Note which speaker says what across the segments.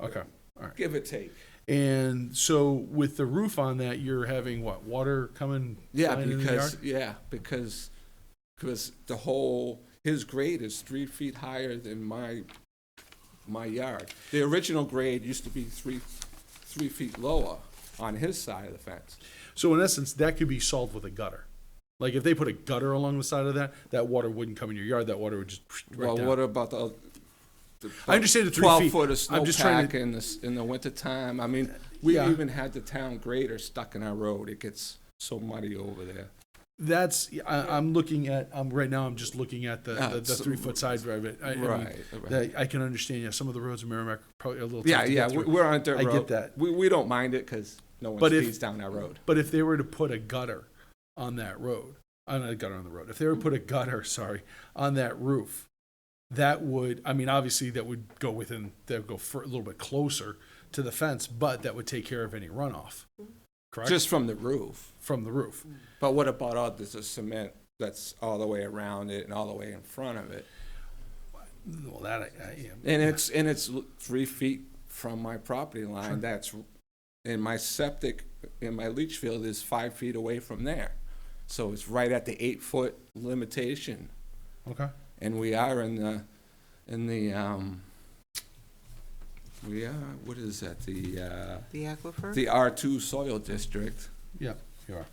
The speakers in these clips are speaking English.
Speaker 1: Okay, all right.
Speaker 2: give or take.
Speaker 1: And so with the roof on that, you're having what water coming?
Speaker 2: Yeah,
Speaker 1: flying in the
Speaker 2: because
Speaker 1: yard?
Speaker 2: yeah, because because the whole his grade is three feet higher than my my yard. The original grade used to be three three feet lower on his side of the fence.
Speaker 1: so in essence, that could be solved with a gutter. Like if they put a gutter along the side of that, that water wouldn't come in your yard. That water would just right
Speaker 2: well,
Speaker 1: down.
Speaker 2: what about the? the
Speaker 1: I understand the three
Speaker 2: twelve
Speaker 1: feet.
Speaker 2: foot of
Speaker 1: I'm just trying
Speaker 2: snowpack
Speaker 1: to-
Speaker 2: in the s- in the wintertime. I mean, we
Speaker 1: Yeah.
Speaker 2: even had the town grader stuck in our road. It gets so muddy over there.
Speaker 1: That's I, I'm looking at. I'm right now. I'm just looking at the
Speaker 2: Ah,
Speaker 1: the, the
Speaker 2: so-
Speaker 1: three foot side drive. I, I mean,
Speaker 2: Right, right.
Speaker 1: that- I can understand. Yeah, some of the roads in Merrimack are probably a little. tough
Speaker 2: Yeah,
Speaker 1: to
Speaker 2: yeah,
Speaker 1: get
Speaker 2: we-
Speaker 1: through.
Speaker 2: we're on a dirt
Speaker 1: I
Speaker 2: road.
Speaker 1: get that.
Speaker 2: We we don't mind it because no one
Speaker 1: But if-
Speaker 2: speeds down our road.
Speaker 1: But if they were to put a gutter on that road, on a gutter on the road, if they were to put a gutter, sorry, on that roof, that would, I mean, obviously that would go within, that would go for, a little bit closer to the fence, but that would take care of any runoff, correct?
Speaker 2: Just from the roof.
Speaker 1: from the roof.
Speaker 2: But what about all this cement that's all the way around it and all the way in front of it?
Speaker 1: Well, that I, I yeah.
Speaker 2: And it's, and it's l- three feet from my property line, that's, and my septic in my leach field is five feet away from there. So it's right at the eight-foot limitation,
Speaker 1: Okay.
Speaker 2: and we are in the, in the, um, we are, what is that, the, uh,
Speaker 3: The aquifer?
Speaker 2: the R two soil district.
Speaker 1: Yeah, you are.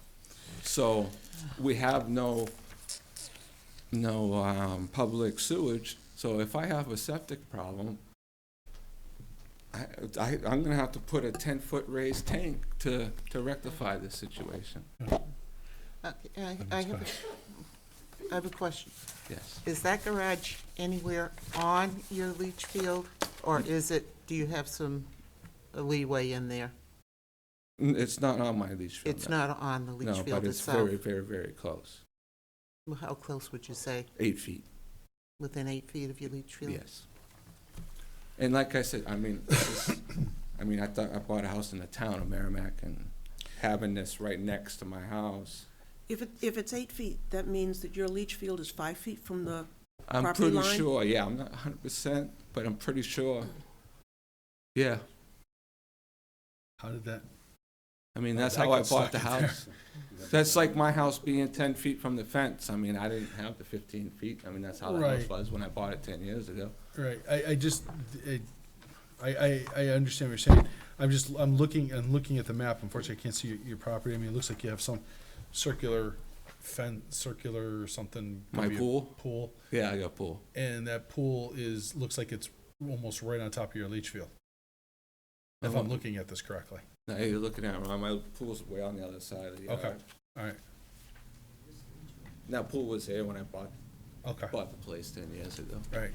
Speaker 2: So we have no, no um, public sewage. So if I have a septic problem, I, I, I'm gonna have to put a ten-foot raised tank to, to rectify this situation.
Speaker 3: Okay, Uh, I I have, a- I have a question.
Speaker 2: Yes.
Speaker 3: Is that garage anywhere on your leach field? Or is it, do you have some leeway in there?
Speaker 2: N- It's not on my leach field.
Speaker 3: It's
Speaker 2: no.
Speaker 3: not on the leach
Speaker 2: No,
Speaker 3: field
Speaker 2: but it's
Speaker 3: itself?
Speaker 2: very, very, very close.
Speaker 3: Well, How close would you say?
Speaker 2: Eight feet,
Speaker 3: Within eight feet of your leach field?
Speaker 2: yes. And like I said, I mean, this is- I mean, I thought, I bought a house in the town of Merrimack and having this right next to my house,
Speaker 4: If it, if it's eight feet, that means that your leach field is five feet from the,
Speaker 2: I'm
Speaker 4: property
Speaker 2: pretty
Speaker 4: line?
Speaker 2: sure. Yeah, I'm not 100, percent but I'm pretty sure. Yeah,
Speaker 1: How did that?
Speaker 2: I mean that's
Speaker 1: That
Speaker 2: how I
Speaker 1: got
Speaker 2: bought
Speaker 1: stuck
Speaker 2: the
Speaker 1: in there.
Speaker 2: house. That's like my house being 10 feet from the fence. I mean, I didn't have the 15 feet. I mean, that's how the house
Speaker 1: Right.
Speaker 2: was when I bought it 10 years ago.
Speaker 1: Right, I, I just, I, I, I understand what you're saying. I'm just, I'm looking, I'm looking at the map, unfortunately, I can't see your, your property, I mean, it looks like you have some circular fence, circular or something. could
Speaker 2: My
Speaker 1: be a
Speaker 2: pool?
Speaker 1: Pool,
Speaker 2: Yeah, I got pool.
Speaker 1: and that pool is, looks like it's almost right on top of your leach field, if I'm
Speaker 2: Uh-huh.
Speaker 1: looking at this correctly.
Speaker 2: Now you're looking at it wrong. My pool's way on the other side of the yard.
Speaker 1: Okay. All right,
Speaker 2: That pool was here when I bought
Speaker 1: okay, all
Speaker 2: bought the place 10 years ago.
Speaker 1: right.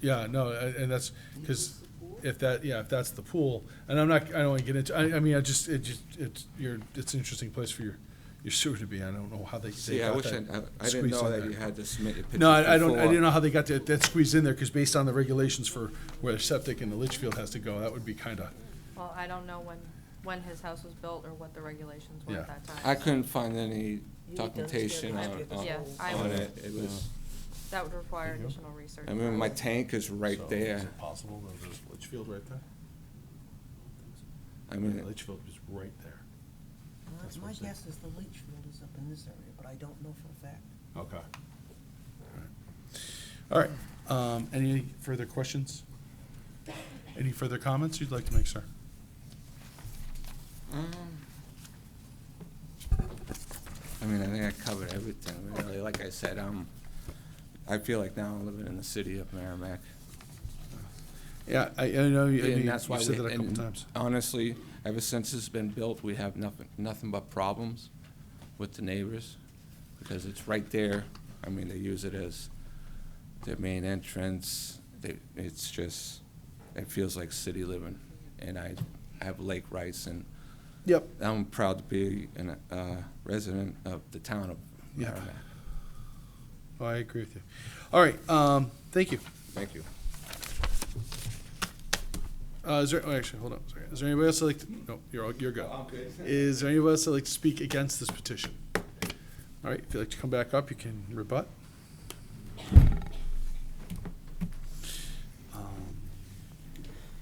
Speaker 1: Yeah, no, a- and that's, because if that, yeah, if that's the pool, and I'm not, I don't want to get into, I, I mean, I just, it just, it's, your, it's an interesting place for your, your sewer to be, I don't know how they, they
Speaker 2: See, I
Speaker 1: got
Speaker 2: wish I,
Speaker 1: that.
Speaker 2: I, I didn't
Speaker 1: squeezed
Speaker 2: know
Speaker 1: in
Speaker 2: that
Speaker 1: there.
Speaker 2: you had to submit your pictures
Speaker 1: No, I, I don't, I
Speaker 2: before.
Speaker 1: didn't know how they got that, that squeezed in there, because based on the regulations for where the septic in the leach field has to go, that would be kind of,
Speaker 5: Well, I don't know when, when his house was built or what the regulations were
Speaker 1: Yeah.
Speaker 5: at that time.
Speaker 2: I couldn't find any
Speaker 4: You need those
Speaker 2: documentation
Speaker 4: to have
Speaker 2: on,
Speaker 4: it.
Speaker 2: on,
Speaker 5: Yeah, I
Speaker 2: on
Speaker 5: would-
Speaker 2: it. It was.
Speaker 5: That would require additional research.
Speaker 2: I mean, my tank is right there.
Speaker 1: Is it possible that there's a leach field right there?
Speaker 2: I
Speaker 1: Yeah,
Speaker 2: mean,
Speaker 1: the leach field is right there. That's what
Speaker 4: my
Speaker 1: I'm saying.
Speaker 4: guess is the leach field is up in this area, but I don't know for a fact.
Speaker 1: Okay. All right, um, any further questions? Any further comments you'd like to make, sir?
Speaker 2: I mean, I think I covered everything, really. Like I said, um, I feel like now I'm living in the city of Merrimack.
Speaker 1: Yeah, I, I know, you
Speaker 2: And
Speaker 1: you-
Speaker 2: that's why
Speaker 1: you've said
Speaker 2: we-
Speaker 1: that a couple
Speaker 2: and
Speaker 1: times.
Speaker 2: Honestly, ever since it's been built, we have nothing, nothing but problems with the neighbors because it's right there. I mean, they use it as their main entrance. They, it's just, it feels like city living. And I, I have Lake Rice and
Speaker 1: Yep.
Speaker 2: I'm proud to be an, uh, resident of the town of
Speaker 1: Yep.
Speaker 2: Merrimack.
Speaker 1: Oh, I agree with you. All right, um, thank you.
Speaker 2: Thank you.
Speaker 1: Uh, is there, oh, actually, hold on, sorry. Is there anybody else that like, to- no, you're, all- you're good. Is there anybody else that like to speak against this petition? All right, if you'd like to come back up, you can rebut. Um,